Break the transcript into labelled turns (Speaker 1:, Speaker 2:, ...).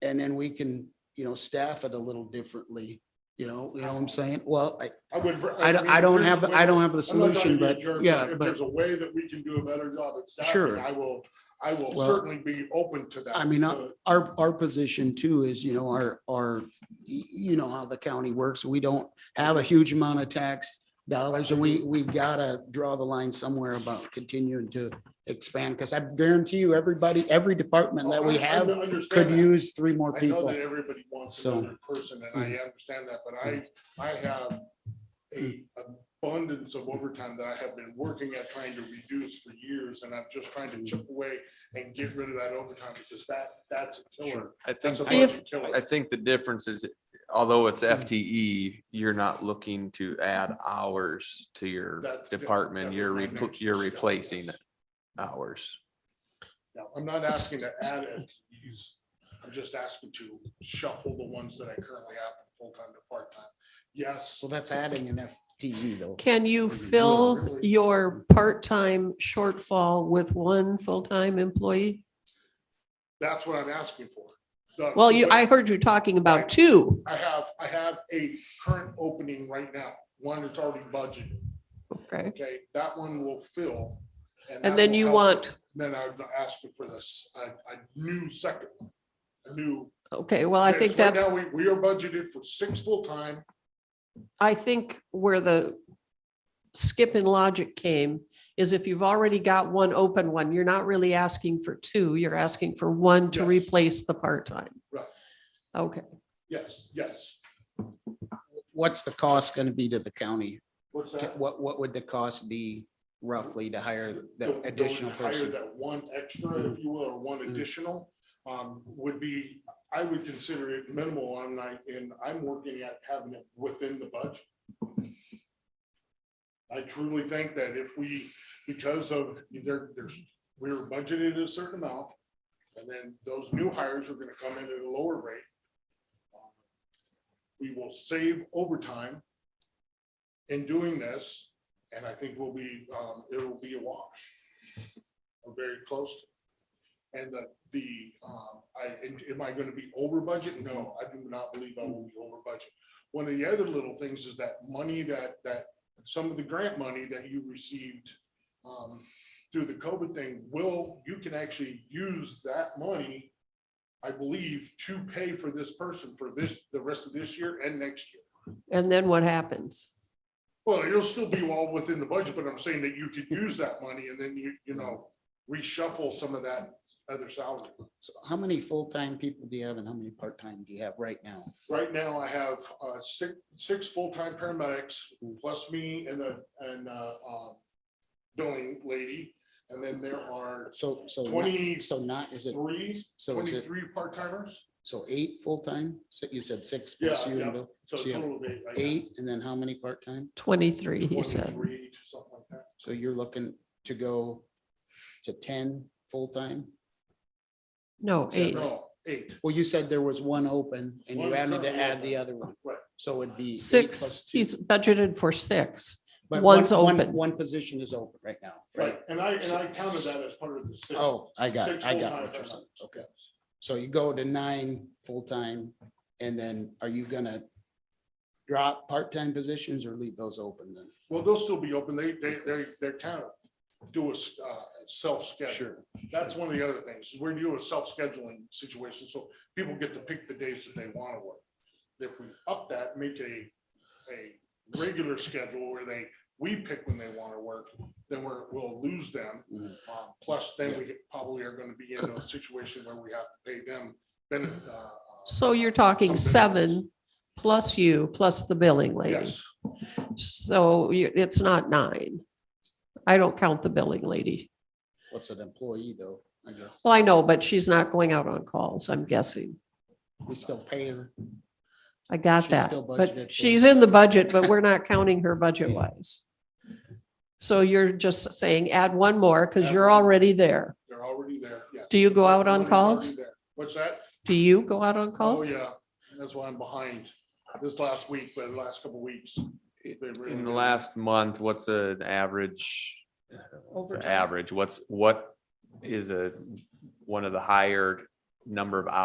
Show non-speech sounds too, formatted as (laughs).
Speaker 1: And then we can, you know, staff it a little differently, you know, you know what I'm saying? Well, I,
Speaker 2: I would.
Speaker 1: I don't,
Speaker 2: mean,
Speaker 1: I
Speaker 2: if
Speaker 1: don't
Speaker 2: there's
Speaker 1: have, the-
Speaker 2: a
Speaker 1: I
Speaker 2: way-
Speaker 1: don't have the
Speaker 2: I'm not trying to
Speaker 1: solution,
Speaker 2: be a
Speaker 1: but
Speaker 2: jerk,
Speaker 1: yeah,
Speaker 2: If
Speaker 1: but
Speaker 2: there's a way that we can do a better job at
Speaker 1: Sure.
Speaker 2: staffing, I will, I will
Speaker 1: Well,
Speaker 2: certainly be open to that.
Speaker 1: I mean, uh, I-
Speaker 2: but
Speaker 1: our, our position too is, you know, our, our, y- you know how the county works. We don't have a huge amount of tax dollars and we, we gotta draw the line somewhere about continuing to expand. Cause I guarantee you, everybody, every department that we
Speaker 2: Oh, I- I
Speaker 1: have
Speaker 2: understand
Speaker 1: could
Speaker 2: that.
Speaker 1: use three more
Speaker 2: I know
Speaker 1: people.
Speaker 2: that everybody wants
Speaker 1: So-
Speaker 2: another person and I understand that, but I, I have a abundance of overtime that I have been working at trying to reduce for years and I'm just trying
Speaker 1: Mm.
Speaker 2: to chip away and get rid of that overtime because that, that's a killer.
Speaker 3: I
Speaker 2: That's a
Speaker 3: think,
Speaker 2: budget killer.
Speaker 3: I think the difference is, although it's FTE, you're not looking to add hours to your
Speaker 2: That's-
Speaker 3: department,
Speaker 2: that
Speaker 3: you're,
Speaker 2: was my
Speaker 3: repl-
Speaker 2: next
Speaker 3: you're
Speaker 2: step.
Speaker 3: replacing hours.
Speaker 2: No, I'm not asking
Speaker 4: (laughs)
Speaker 2: to add FTEs. I'm just asking to shuffle the ones that I currently have from full-time to part-time. Yes,
Speaker 1: So that's adding an FTE though.
Speaker 4: Can you
Speaker 1: Maybe
Speaker 2: not
Speaker 4: fill
Speaker 2: really.
Speaker 4: your part-time shortfall with one full-time employee?
Speaker 2: that's what I'm asking for. The-
Speaker 4: Well, you,
Speaker 2: the-
Speaker 4: I heard you talking
Speaker 2: I-
Speaker 4: about two.
Speaker 2: I have, I have a current opening right now, one that's already budgeted,
Speaker 4: Okay.
Speaker 2: okay? That one will fill. that
Speaker 4: And then
Speaker 2: will
Speaker 4: you
Speaker 2: help.
Speaker 4: want,
Speaker 2: Then I'm asking for this, a, a new second, one, a new.
Speaker 4: okay, well, I think
Speaker 2: because right
Speaker 4: that's,
Speaker 2: now We, we are budgeted for six full-time.
Speaker 4: I think where the skip in logic came is if you've already got one open one, you're not really asking for two, you're asking for one to
Speaker 2: Yes.
Speaker 4: replace the part-time.
Speaker 2: Right.
Speaker 4: Okay,
Speaker 2: Yes, yes.
Speaker 1: What's the cost gonna be to the county?
Speaker 2: What's
Speaker 1: To-
Speaker 2: that?
Speaker 1: What, what would the cost be roughly to hire
Speaker 2: Go- go
Speaker 1: the
Speaker 2: and
Speaker 1: additional
Speaker 2: hire
Speaker 1: person? Mm-hmm.
Speaker 2: That one extra, if you will, or one additional, um, would be, I would consider it minimal on my, and I'm working at having it within the budget. I truly think that if we, because of, there, there's, we were budgeted a certain amount, and then those new hires are gonna come in at a lower rate. um, We will save overtime in doing this, and I think we'll be, um, it'll be a wash. Or very close. to. And the, the, um, I, am- am I gonna be over budget? No, I do not believe I will be over budget. One of the other little things is that money that, that, some of the grant money that you received, um, through the COVID thing, will, you can actually use that money, I believe, to pay for this person for this, the rest of this year and next year.
Speaker 4: and then what happens?
Speaker 2: Well, it'll still be all within the budget, but I'm saying that you could use that money and then you, you know, reshuffle some of that other salary.
Speaker 1: So How many full-time people do you have and how many part-time do you have right now?
Speaker 2: Right now, I have uh six, six full-time paramedics, plus me and the, and uh um, billing lady, and then there are
Speaker 1: So, so, not-
Speaker 2: twenty-three,
Speaker 1: so not, is it, so is it,
Speaker 2: 23 part-timers.
Speaker 1: so eight full-time? So You said six
Speaker 2: Yeah,
Speaker 1: plus you
Speaker 2: yeah.
Speaker 1: and Bill,
Speaker 2: So
Speaker 1: So you have
Speaker 2: total of eight. right now.
Speaker 1: eight, and then how many part-time?
Speaker 4: Twenty-three, he said.
Speaker 2: 23, something like that.
Speaker 1: So you're looking to go to ten full-time?
Speaker 4: No, eight.
Speaker 2: No, eight.
Speaker 1: Well, you said there was one open and you
Speaker 2: One
Speaker 1: had to
Speaker 2: currently
Speaker 1: add the
Speaker 2: open.
Speaker 1: other one.
Speaker 2: Right.
Speaker 1: So it'd be. eight plus
Speaker 4: Six,
Speaker 1: two.
Speaker 4: he's budgeted for six.
Speaker 1: But
Speaker 4: one's
Speaker 1: one- one-
Speaker 4: open.
Speaker 1: One position is open right now.
Speaker 2: Right, and I, and I counted that as part of the six.
Speaker 1: Oh, I got, it.
Speaker 2: Six
Speaker 1: I got
Speaker 2: full-time
Speaker 1: what you're saying.
Speaker 2: paramedics.
Speaker 1: Okay. So you go to nine full-time and then are you gonna drop part-time positions or leave those open then?
Speaker 2: Well, they'll still be open. They, they, they, they're kind of do a s- uh, self-schedule.
Speaker 1: Sure.
Speaker 2: That's one of the other things. is We're doing a self-scheduling situation, so people get to pick the days that they want to work. If we up that, make a, a regular schedule where they, we pick when they want to work, then we're, we'll lose them.
Speaker 1: Mhm.
Speaker 2: Um, Plus, then we probably are going to be in a situation where we have to pay them. Then, uh,
Speaker 4: So you're talking
Speaker 2: Something else.
Speaker 4: seven plus you, plus the billing lady.
Speaker 2: yes,
Speaker 4: So you- it's not nine. I don't count the billing lady.
Speaker 1: What's an employee though, I guess?
Speaker 4: Well, I know, but she's not going out on calls, I'm guessing.
Speaker 1: We still pay her.
Speaker 4: I got
Speaker 1: She's
Speaker 4: that,
Speaker 1: still budgeted
Speaker 4: but
Speaker 1: for-
Speaker 4: she's in the budget, but we're not counting her budget wise. So you're just saying add one more because
Speaker 2: Add
Speaker 4: you're
Speaker 2: one.
Speaker 4: already there.
Speaker 2: they're already there. Yeah.
Speaker 4: Do you go out on
Speaker 2: Already- already
Speaker 4: calls?
Speaker 2: there. What's that?
Speaker 4: Do you go out on
Speaker 2: Oh,
Speaker 4: calls?
Speaker 2: yeah, that's why I'm behind this last week, but the last couple weeks. they've really
Speaker 3: In the
Speaker 2: been-
Speaker 3: last month, what's an average,
Speaker 4: Overtime.
Speaker 3: average, what's, what is a, one of the higher number of hours